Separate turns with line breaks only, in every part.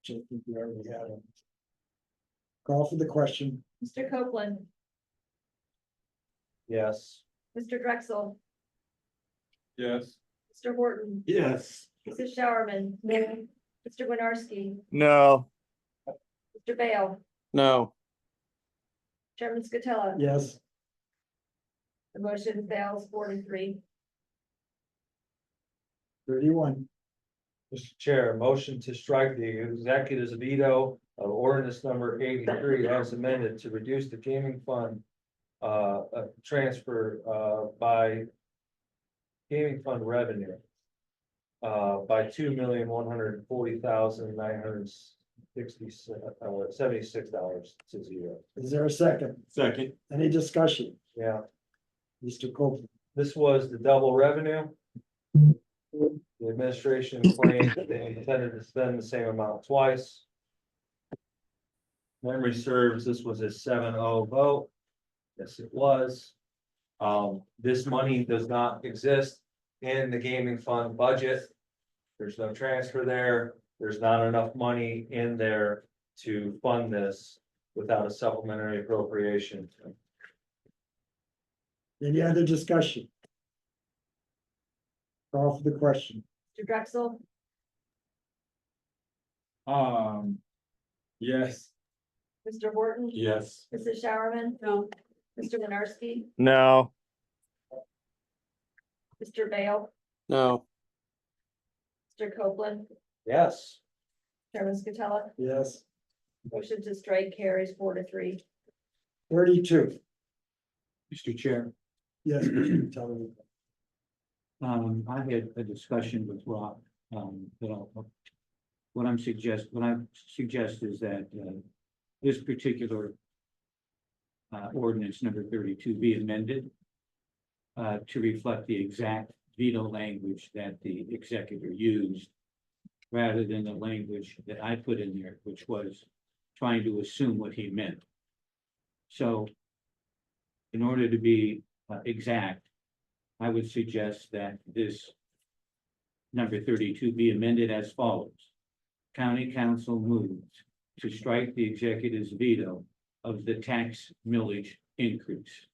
which I think we already had. on. Call for the question.
Mr. Copeland,
Yes.
Mr. Drexel,
Yes.
Mr. Horton,
Yes.
Mrs. Showerman. Mr. Winarski,
No.
Mr. Bale,
No.
Chairman Scatella.
Yes,
The motion fails four to three.
thirty-one.
Mr. Chair, motion to strike the executive's veto of ordinance number eighty-three as amended to reduce the gaming fund. Uh, uh, transfer, uh, by. Gaming fund revenue. Uh, by two million, one hundred and forty thousand, nine hundred and sixty, uh, seventy-six dollars to zero.
Is there a second?
Second.
Any discussion?
Yeah,
Mr. Copeland?
This was the double revenue. The administration claimed that they intended to spend the same amount twice. Memory serves, this was a 7-0 vote. Yes, it was. Um, this money does not exist in the gaming fund budget. There's no transfer there. There's not enough money in there to fund this without a supplementary appropriation.
Any other discussion? Call for the question.
Mr. Drexel,
Um. Yes.
Mr. Horton,
Yes.
Mrs. Showerman. No. Mr. Winarski,
No.
Mr. Bale,
No.
Mr. Copeland,
Yes.
Chairman Scatella.
Yes,
Motion to strike carries four to three.
thirty-two.
Mr. Chair,
Yes, Mr. Tellerico.
um, I had a discussion with Rob, um, that I'll- What I'm suggest, what I suggest is that, uh, this particular. Uh, ordinance number thirty-two be amended. Uh, to reflect the exact veto language that the executor used. Rather than the language that I put in there, which was trying to assume what he meant. So. In order to be uh, exact, I would suggest that this number thirty-two be amended as follows. County council moves to strike the executive's veto of the tax millage increase.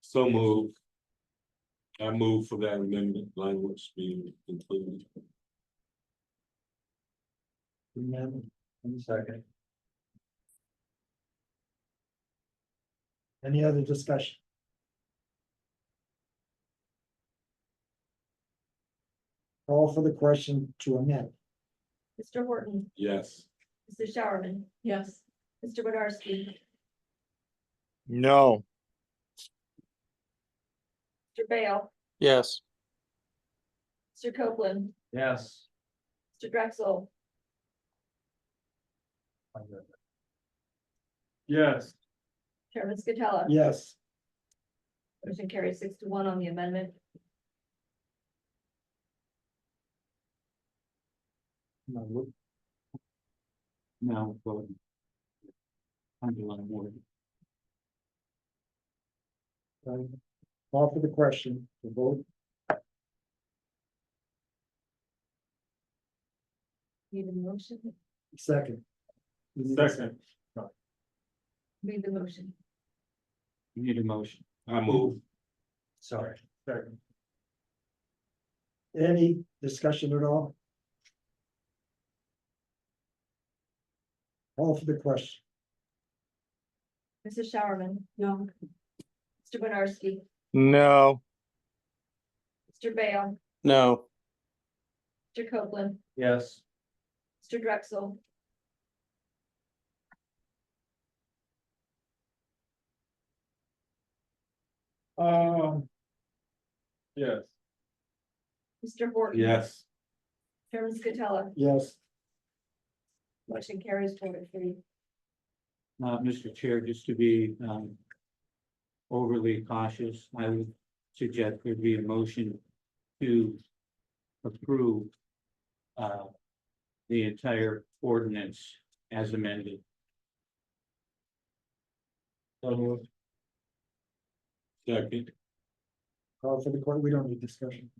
So move. I move for that amendment language being included.
Amendment.
Second.
Any other discussion? Call for the question to amend.
Mr. Horton,
Yes,
Mrs. Showerman. Yes. Mr. Winarski,
No.
Mr. Bale,
Yes.
Mr. Copeland,
Yes.
Mr. Drexel,
Yes.
Chairman Scatella.
Yes,
Motion carries six to one on the amendment.
Now, look. Now, vote. Underline word.
um, call for the question, the vote,
Need a motion?
second.
Second.
Need the motion.
You need a motion.
I move.
Sorry.
Second. Any discussion at all? Call for the question.
Mrs. Showerman. No. Mr. Winarski,
No.
Mr. Bale,
No.
Mr. Copeland,
Yes.
Mr. Drexel,
Um. Yes.
Mr. Horton.
Yes,
Chairman Scatella,
Yes,
motion carries four to three.
Uh, Mr. Chair, just to be, um. Overly cautious, I would suggest there be a motion to approve. Uh, the entire ordinance as amended.
So moved.
second,
call for the question. we don't need discussion.